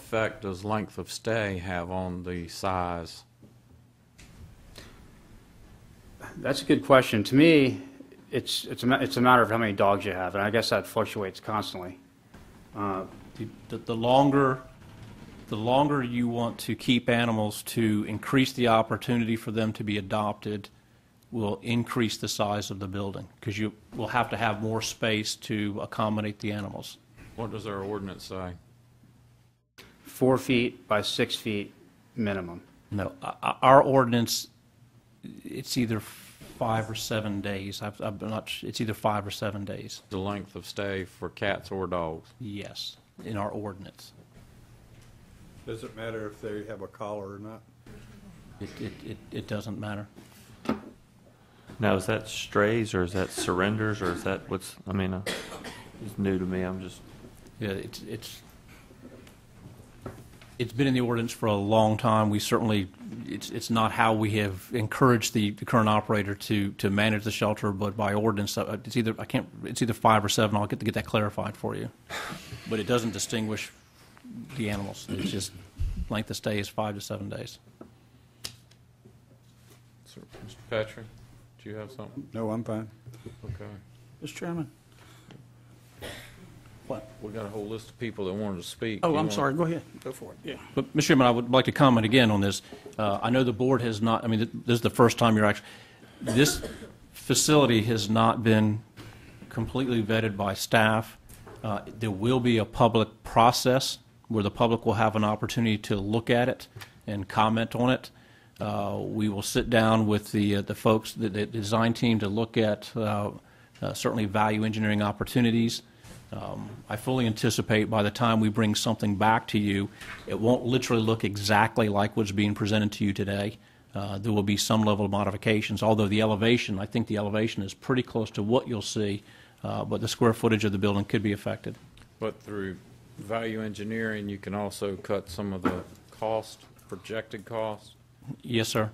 effect does length of stay have on the size? That's a good question. To me, it's, it's, a, ma- it's a matter of how many dogs you have, and I guess that fluctuates constantly. The- The, the longer, the longer you want to keep animals to increase the opportunity for them to be adopted will increase the size of the building because you will have to have more space to accommodate the animals. What does our ordinance say? Four feet by six feet minimum. No, o- o- our ordinance, it's either five or seven days. I've, I'm not, su- it's either five or seven days. The length of stay for cats or dogs? Yes, in our ordinance. Does it matter if they have a collar or not? It, it, it, it doesn't matter. Now, is that strays or is that surrenders or is that what's, I mean, uh, it's new to me. I'm just, Yeah, it's, it's, it's been in the ordinance for a long time. We certainly, it's, it's not how we have encouraged the, the current operator to, to manage the shelter, but by ordinance, uh, it's either, I can't, it's either five or seven. I'll get to get that clarified for you. But it doesn't distinguish the animals. It's just length of stay is five to seven days. Sir, Mr. Patrick, do you have something? No, I'm fine. Okay. Mr. Chairman? What? We got a whole list of people that wanted to speak. Oh, You I'm want- sorry, go ahead, go for it, yeah. But, Mr. Chairman, I would like to comment again on this. Uh, I know the board has not, I mean, th- this is the first time you're actually, this facility has not been completely vetted by staff. Uh, There will be a public process where the public will have an opportunity to look at it and comment on it. Uh, We will sit down with the, uh, the folks, the, the design team to look at uh, uh, certainly value engineering opportunities. Um, I fully anticipate by the time we bring something back to you, it won't literally look exactly like what's being presented to you today. Uh, There will be some level of modifications, although the elevation, I think the elevation is pretty close to what you'll see, uh, but the square footage of the building could be affected. But through value engineering, you can also cut some of the cost, projected cost? Yes, sir.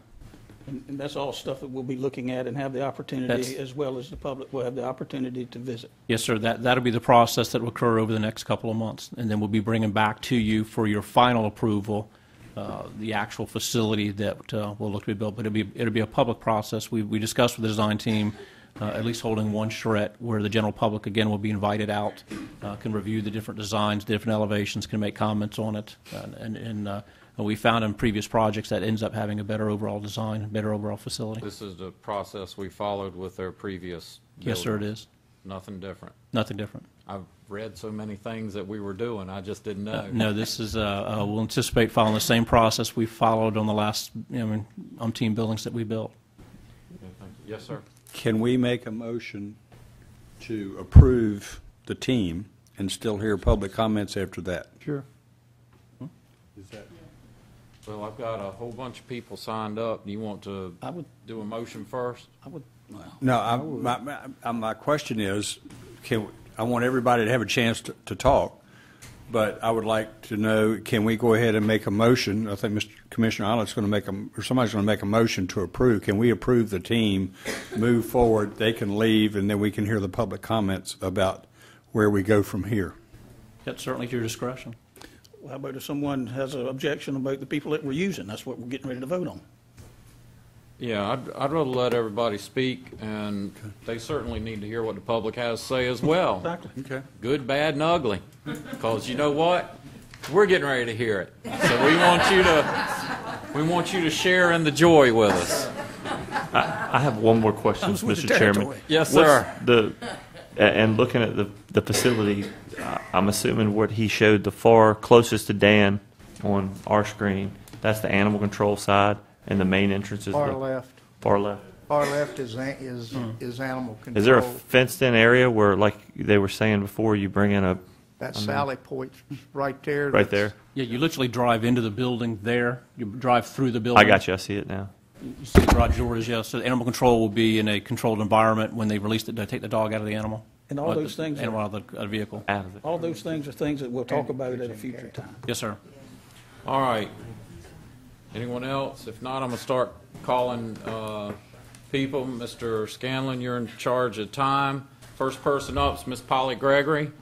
And and that's all stuff that we'll be looking at and have the opportunity, That's- as well as the public will have the opportunity to visit. Yes, sir. That, that'll be the process that will occur over the next couple of months. And then we'll be bringing back to you for your final approval, uh, the actual facility that uh, will look to be built. But it'll be, it'll be a public process. We, we discussed with the design team, uh, at least holding one charrette where the general public, again, will be invited out, uh, can review the different designs, different elevations, can make comments on it. And- And, and uh, we found in previous projects that ends up having a better overall design, better overall facility. This is the process we followed with their previous Yes, sir, it building. is. Nothing different. Nothing different. I've read so many things that we were doing, I just didn't know. Uh, No, this is, uh, uh, we'll anticipate following the same process we followed on the last, I mean, umpteen buildings that we built. Yes, sir. Can we make a motion to approve the team and still hear public comments after that? Sure. Is that? Well, I've got a whole bunch of people signed up. Do you want to I would, do a motion first? I would, No, I, my, my- uh, my question is, can, I want everybody to have a chance to, to talk, but I would like to know, can we go ahead and make a motion? I think Mr. Commissioner Island's going to make a, or somebody's going to make a motion to approve. Can we approve the team, move forward, they can leave, and then we can hear the public comments about where we go from here? That's certainly to your discretion. how about if someone has an objection about the people that we're using? That's what we're getting ready to vote on. Yeah, I'd, I'd rather let everybody speak, and they certainly need to hear what the public has to say as well. Exactly. Okay. Good, bad, and ugly. Because you know what? We're getting ready to hear it. So we want you to, we want you to share in the joy with us. I have one more question, Comes with the Mr. Chairman. territory. Yes, What's sir. The, a- and looking at the, the facility, I- I'm assuming what he showed, the far closest to Dan on our screen, that's the animal control side and the main entrance is Far the left, far left. far left is, an- is, is animal control. Is there a fenced-in area where, like they were saying before, you bring in a, That Sally Point right there. right that's- there? Yeah, you literally drive into the building there, you drive through the building. I got you, I see it now. You see the garage doors, yes. So animal control will be in a controlled environment when they release it, they take the dog out of the animal. And all Or those the things are- Animal out of the uh, vehicle. Out of it. All those things are things that we'll talk about at a future time. Yes, sir. All right. Anyone else? If not, I'm going to start calling uh, people. Mr. Scanlon, you're in charge of time. First person up is Miss Polly Gregory.